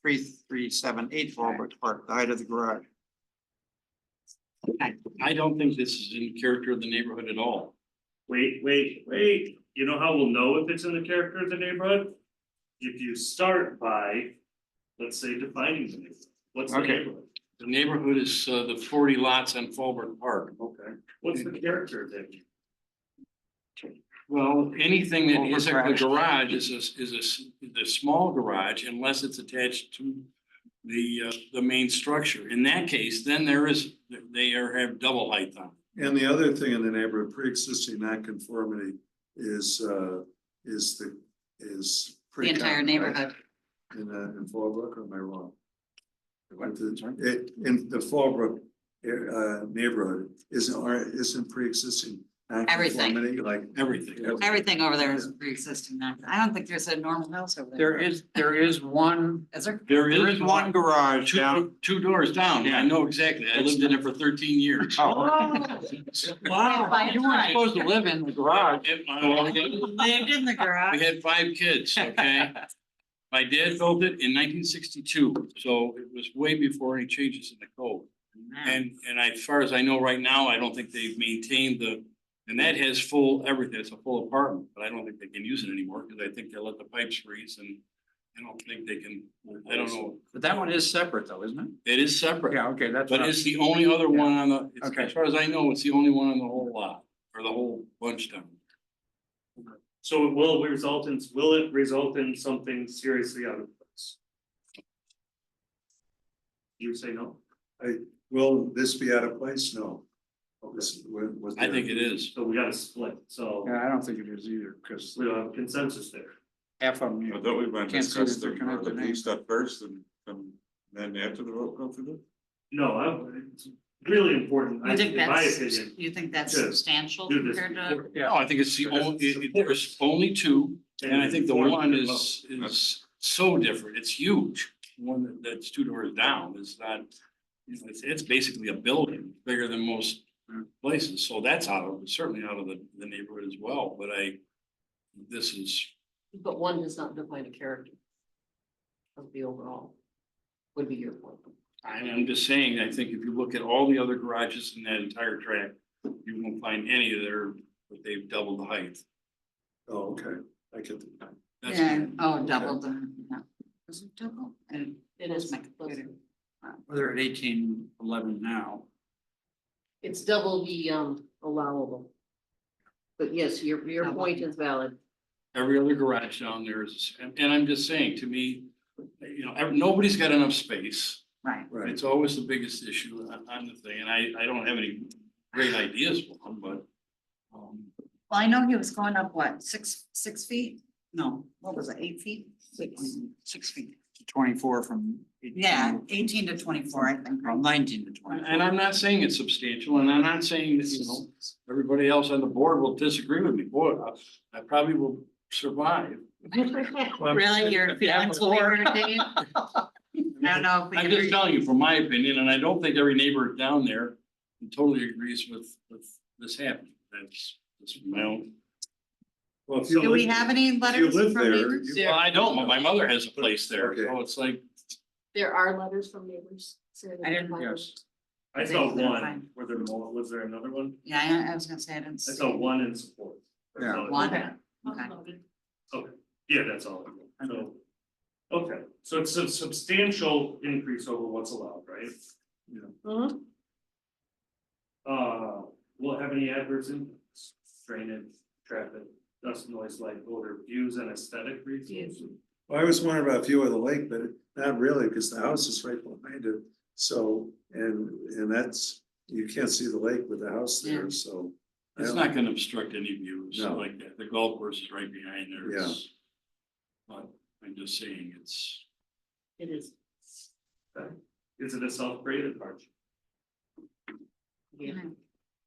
three, three, seven, eight Fallbrook Park, the height of the garage. I don't think this is in character of the neighborhood at all. Wait, wait, wait, you know how we'll know if it's in the character of the neighborhood? If you start by, let's say, defining the neighborhood, what's the Okay. neighborhood? The neighborhood is uh, the forty lots on Fallbrook Park. Okay. What's the character of that? Well, anything that isn't the Overcrowded. garage is a, is a, s- the small garage unless it's attached to the, uh, the main structure. In that case, then there is, they are, have double height on. And the other thing in the neighborhood, pre-existing nonconformity is, uh, is the, is. the pretty entire common, right? neighborhood. In, uh, in Fallbrook, or am I wrong? What? It, in the Fallbrook, uh, neighborhood isn't, are- isn't pre-existing Everything. nonconformity, like. Everything. Everything over there is pre-existing now. I don't think there's a normal house over There there. is, there is one, Is there? There There is one garage down. Two, two doors down. I know exactly. I lived in it for thirteen years. Oh, By you weren't right. supposed to live in the garage. It- uh, my- Lived in the We garage. had five kids, okay? My dad built it in nineteen sixty-two, so it was way before any changes in the code. Hmm. And, and I- as far as I know right now, I don't think they've maintained the, and that has full everything, it's a full apartment, but I don't think they can use it anymore, because I think they let the pipes freeze and I don't think they can, I don't know, But that one is separate though, isn't it? it is separate, Yeah, okay, that's. but what I- it's the only other one on the, it's- Okay. as far as I know, it's the only one on the whole lot, or the whole bunch down. So it will result in, will it result in something seriously out of place? You say no? Will this be out of place? No. Oh, this- was- was I there- think it is. So we gotta split, so Yeah, I don't think it is either, because we don't have consensus there. half of them. you- Although we want to Can't say that discuss they're the, gonna have the the blue name. stuff first and, and then after the vote go through No, I, it's really important, I You think in my that's, opinion, you think that's Yes. substantial do this. compared to? before. No, I think it's the only, it- it- there's only two, and I think the inform one the is, is so different, it's huge. One that- that's two doors down is not, it's, it's basically a building, bigger than most places, so that's out of, certainly out of the, the neighborhood as well, but I, this is, But one does not define a character. Of the overall. Would be your point. I'm, I'm just saying, I think if you look at all the other garages in that entire tract, you won't find any of their, but they've doubled the height. Oh, okay, I get the. That's- Yeah, oh, double the, yeah. Was it double? And It is, my computer. Well, they're at eighteen eleven now. it's double the um allowable. But yes, your your Double. point is valid. Every other garage down there is, and, and I'm just saying, to me, you know, ev- nobody's got enough space. right. Right. It's always the biggest issue on, on the thing, and I, I don't have any great ideas for them, but. um, Well, I know he was going up, what, six, six feet? No, what was it, eight feet? Six. Six feet. Twenty-four from. 18 Yeah, eighteen to twenty-four, I think. From nineteen to twenty. And I'm not saying it's substantial, and I'm not saying that, you know, everybody else on the board will disagree with me, boy, I, I probably will survive. Really, your feelings will be hurt, Dave? I don't know. if we I'm can just reach- telling you from my opinion, and I don't think every neighbor down there totally agrees with, with this happening, that's, that's my own Well, if you Do we live- have any letters live from there, neighbors? you- Well, I don't, but my mother has a place there, Okay. so it's like, There are letters from neighbors. saying that I didn't- they're Yes. I saw Things that are one, fine. were there more, was there another one? Yeah, I- I was gonna say I didn't I see saw one in support. That's Yeah. all it- one. Okay. Okay. fine. Yeah, that's all, I know. so, okay, so it's a substantial increase over what's allowed, right? Mhm. Uh, will it have any adverse impacts, drainage, traffic, dust, noise, light, odor, views and aesthetic reasons? Well, I was wondering about view of the lake, but not really, because the house is right behind it, so, and, and that's, you can't see the lake with the house there, so. I it's don't- not gonna obstruct any views No. like that. The golf course is right behind there. It's- But I'm just saying, it's, It is. Is it a self-created hardship? Yeah.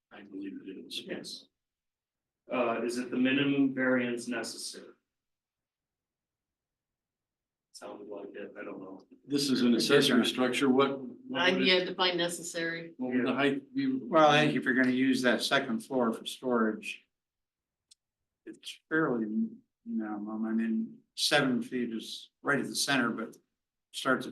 I believe it is. Yes. Uh, is it the minimum variance necessary? Sounded like it, I don't know. This is an accessory structure, what? what I would it- yeah, define necessary. What would the height be? Well, I think if you're gonna use that second floor for storage. It's fairly minimum, I mean, seven feet is right at the center, but starts at